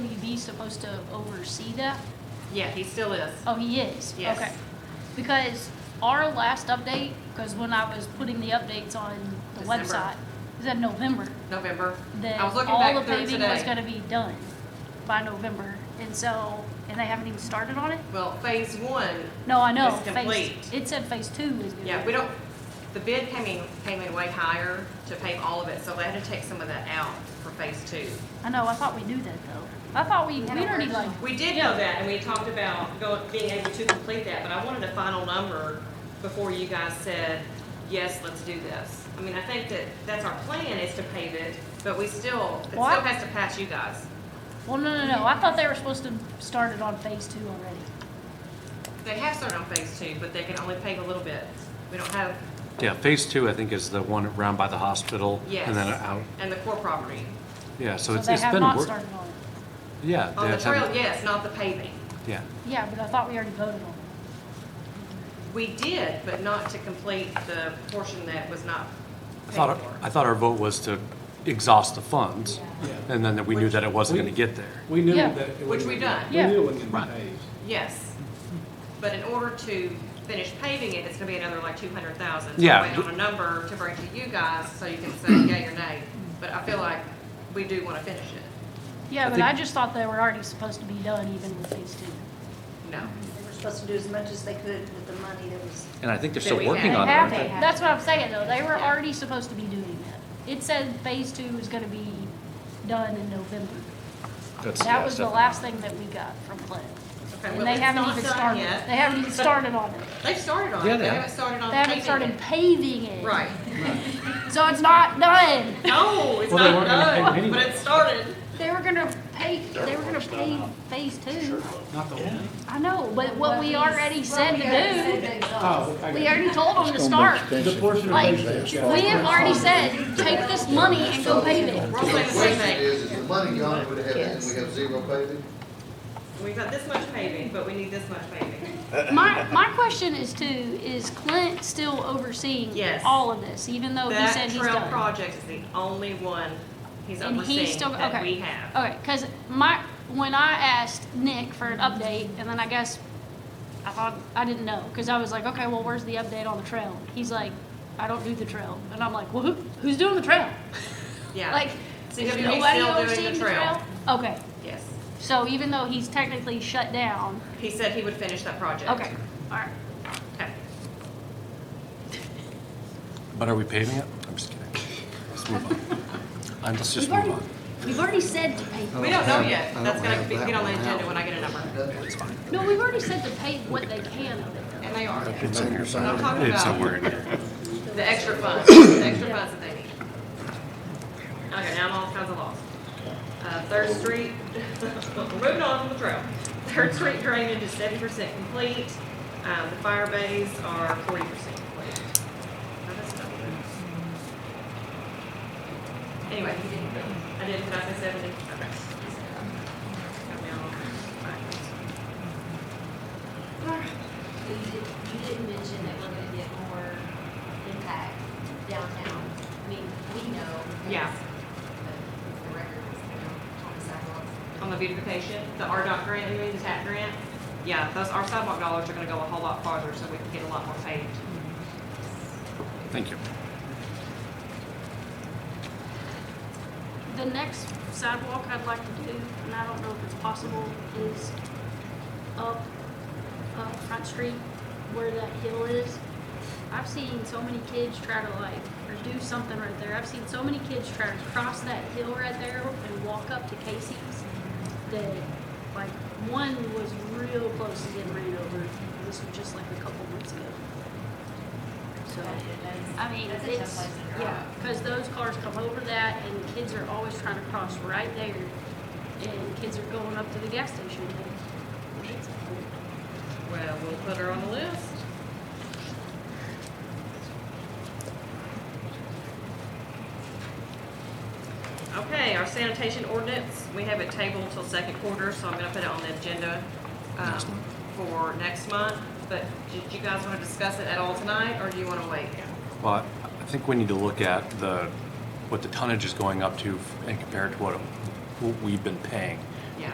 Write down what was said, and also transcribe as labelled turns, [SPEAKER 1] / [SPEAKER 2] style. [SPEAKER 1] he's supposed to oversee that?
[SPEAKER 2] Yeah, he still is.
[SPEAKER 1] Oh, he is?
[SPEAKER 2] Yes.
[SPEAKER 1] Okay. Because our last update, because when I was putting the updates on the
[SPEAKER 2] December.
[SPEAKER 1] website, was that November,
[SPEAKER 2] November.
[SPEAKER 1] that
[SPEAKER 2] I was looking
[SPEAKER 1] all the
[SPEAKER 2] back through it
[SPEAKER 1] paving was
[SPEAKER 2] today.
[SPEAKER 1] gonna be done by November. And so, and they haven't even started on it?
[SPEAKER 2] Well, phase one,
[SPEAKER 1] No, I know.
[SPEAKER 2] It's
[SPEAKER 1] phase-
[SPEAKER 2] complete.
[SPEAKER 1] It said phase two is gonna.
[SPEAKER 2] yeah,
[SPEAKER 1] be-
[SPEAKER 2] we don't, the bid came in, came in way higher to pave all of it, so they had to take some of that out for phase two.
[SPEAKER 1] I know, I thought we knew that though. I thought we, we already like,
[SPEAKER 2] We did know that, and we talked about go- being able to complete that, but I wanted a final number before you guys said, yes, let's do this. I mean, I think that that's our plan is to pave it, but we still, it still
[SPEAKER 1] What?
[SPEAKER 2] has to pass you guys.
[SPEAKER 1] well, no, no, no. I thought they were supposed to start it on phase two already.
[SPEAKER 2] They have started on phase two, but they can only pave a little bit. We don't have,
[SPEAKER 3] Yeah, phase two, I think, is the one around by the hospital. And then
[SPEAKER 2] Yes.
[SPEAKER 3] out,
[SPEAKER 2] and the core property.
[SPEAKER 3] yeah, so
[SPEAKER 1] So
[SPEAKER 3] it's,
[SPEAKER 1] they
[SPEAKER 3] it's
[SPEAKER 1] have
[SPEAKER 3] been,
[SPEAKER 1] not
[SPEAKER 3] wor-
[SPEAKER 1] started Oh, on it.
[SPEAKER 3] yeah.
[SPEAKER 2] On the
[SPEAKER 3] they have-
[SPEAKER 2] trail, yes, not the paving.
[SPEAKER 3] Yeah,
[SPEAKER 1] Yeah, but I thought we already voted on it.
[SPEAKER 2] We did, but not to complete the portion that was not
[SPEAKER 3] I
[SPEAKER 2] paid
[SPEAKER 3] thought,
[SPEAKER 2] for.
[SPEAKER 3] I thought our vote was to exhaust the funds,
[SPEAKER 4] Yeah,
[SPEAKER 3] and then that we knew that it wasn't
[SPEAKER 4] Which-
[SPEAKER 3] gonna get there.
[SPEAKER 4] we knew
[SPEAKER 1] Yeah.
[SPEAKER 4] that. it
[SPEAKER 2] Which we
[SPEAKER 4] wasn't-
[SPEAKER 2] done.
[SPEAKER 1] Yeah.
[SPEAKER 4] We knew it wasn't gonna be
[SPEAKER 3] Right.
[SPEAKER 4] paved.
[SPEAKER 2] Yes. But in order to finish paving it, it's gonna be another like two hundred thousand.
[SPEAKER 3] Yeah.
[SPEAKER 2] Waiting on a number to bring to you guys so you can say yay or nay. But I feel like we do wanna finish it.
[SPEAKER 1] Yeah,
[SPEAKER 3] I
[SPEAKER 1] but
[SPEAKER 3] think-
[SPEAKER 1] I just thought they were already supposed to be done even with phase two.
[SPEAKER 2] No.
[SPEAKER 5] They were supposed to do as much as they could with the money that was.
[SPEAKER 6] And I think they're
[SPEAKER 2] That we
[SPEAKER 6] still working
[SPEAKER 2] had.
[SPEAKER 6] on it,
[SPEAKER 5] have
[SPEAKER 6] aren't
[SPEAKER 5] it.
[SPEAKER 6] they?
[SPEAKER 1] That's what I'm saying though, they were
[SPEAKER 2] Yeah.
[SPEAKER 1] already supposed to be doing that. It said phase two was gonna be done in November.
[SPEAKER 6] That's-
[SPEAKER 1] That
[SPEAKER 6] yeah,
[SPEAKER 1] was the
[SPEAKER 6] stuff.
[SPEAKER 1] last thing that we got from Glenn.
[SPEAKER 2] Okay,
[SPEAKER 1] And
[SPEAKER 2] well,
[SPEAKER 1] they
[SPEAKER 2] it's
[SPEAKER 1] haven't
[SPEAKER 2] not
[SPEAKER 1] even
[SPEAKER 2] done
[SPEAKER 1] started,
[SPEAKER 2] yet.
[SPEAKER 1] they haven't even started on it.
[SPEAKER 2] They've started on
[SPEAKER 6] Yeah,
[SPEAKER 2] it, they
[SPEAKER 6] they
[SPEAKER 2] haven't started on
[SPEAKER 1] They haven't started
[SPEAKER 2] paving it.
[SPEAKER 1] paving it.
[SPEAKER 2] Right.
[SPEAKER 1] So it's not done.
[SPEAKER 2] No, it's
[SPEAKER 3] Well, they
[SPEAKER 2] not
[SPEAKER 3] weren't gonna pave
[SPEAKER 2] done,
[SPEAKER 3] anyway.
[SPEAKER 2] but it started.
[SPEAKER 1] They were gonna pave, they were gonna pave phase two.
[SPEAKER 4] Not the whole thing.
[SPEAKER 1] I know, but what we already said
[SPEAKER 5] Well, we already
[SPEAKER 1] to
[SPEAKER 5] said they exhaust.
[SPEAKER 4] Oh,
[SPEAKER 1] do,
[SPEAKER 4] I
[SPEAKER 1] we
[SPEAKER 4] got it.
[SPEAKER 1] already told them to start.
[SPEAKER 4] The portion of
[SPEAKER 1] Like,
[SPEAKER 4] paved that's-
[SPEAKER 1] We have already said, take this money and go pave it.
[SPEAKER 2] We're all saying the same
[SPEAKER 7] Question
[SPEAKER 2] thing.
[SPEAKER 7] is, is the money gone, would it have, and we have zero paving?
[SPEAKER 2] We've got this much paving, but we need this much paving.
[SPEAKER 1] My, my question is too, is Clint still overseeing
[SPEAKER 2] Yes.
[SPEAKER 1] all of this, even though Oh, he
[SPEAKER 2] That
[SPEAKER 1] said he's
[SPEAKER 2] trail
[SPEAKER 1] done?
[SPEAKER 2] project is the only one he's
[SPEAKER 1] And he's
[SPEAKER 2] overseeing
[SPEAKER 1] still-
[SPEAKER 2] that
[SPEAKER 1] okay. Oh,
[SPEAKER 2] we have.
[SPEAKER 1] Okay, cause my, when I asked Nick for an update, and then I guess, I thought, I didn't know, cause I was like, okay, well, where's the update on the trail? He's like, I don't do the trail, and I'm like, well, who, who's doing the trail?
[SPEAKER 2] Yeah.
[SPEAKER 1] Like, is
[SPEAKER 2] CWB
[SPEAKER 1] nobody
[SPEAKER 2] still doing
[SPEAKER 1] overseeing
[SPEAKER 2] the trail.
[SPEAKER 1] Okay,
[SPEAKER 2] Yes.
[SPEAKER 1] so even though he's technically shut down,
[SPEAKER 2] He said he would finish that project.
[SPEAKER 1] okay, alright.
[SPEAKER 2] Okay.
[SPEAKER 3] But are we paving it? I'm just kidding. Let's move on. I'm just, just
[SPEAKER 1] We've
[SPEAKER 3] move
[SPEAKER 1] already,
[SPEAKER 3] on.
[SPEAKER 1] we've already said to pay.
[SPEAKER 2] We don't know yet.
[SPEAKER 7] I don't
[SPEAKER 2] That's gonna
[SPEAKER 7] have
[SPEAKER 2] be,
[SPEAKER 7] that
[SPEAKER 2] get on the
[SPEAKER 7] one
[SPEAKER 2] agenda
[SPEAKER 7] out.
[SPEAKER 2] when I get a number.
[SPEAKER 1] No, we've already said to pay what they can of it.
[SPEAKER 2] And they are.
[SPEAKER 7] It's in your
[SPEAKER 2] I'm talking
[SPEAKER 3] It's
[SPEAKER 2] about
[SPEAKER 3] somewhere in here.
[SPEAKER 2] the extra funds, the extra funds that they need. Okay, now I'm all kinds of lost. Uh, Third Street, we're moving on from the trail. Third Street drainage is seventy percent complete. Uh, the fire bays are forty percent complete. Now, that's not good. Anyway, I did, did I say seventy? Okay. Got me all-
[SPEAKER 8] You did- you didn't mention that we're gonna get more impact downtown. I mean, we know. that
[SPEAKER 2] Yeah.
[SPEAKER 8] it's- but The record is, you know, on the sidewalks.
[SPEAKER 2] on the beautification, the RDOT grant, you mean, the TAP grant? Yeah, those, our sidewalk dollars are gonna go a whole lot farther, so we can get a lot more paved.
[SPEAKER 3] Thank you.
[SPEAKER 1] The next sidewalk I'd like to do, and I don't know if it's possible, is up, up Front Street where that hill is. I've seen so many kids try to like, or do something right there. I've seen so many kids try to cross that hill right there and walk up to Casey's. That, like, one was real close to getting ran over. This was just like a couple months ago. So. I mean,
[SPEAKER 8] That's a tough
[SPEAKER 1] it's,
[SPEAKER 8] place to drive.
[SPEAKER 1] yeah, because those cars come over that and kids are always trying to cross right there. And kids are going up to the gas station. It's-
[SPEAKER 2] Well, we'll put her on the list. Okay, our sanitation ordinance, we have it tabled till second quarter, so I'm gonna put it on the agenda, um, for next month. But did you guys wanna discuss it at all tonight, or do you wanna wait?
[SPEAKER 3] Well, I think we need to look at the, what the tonnage is going up to and compare it to what we've been paying.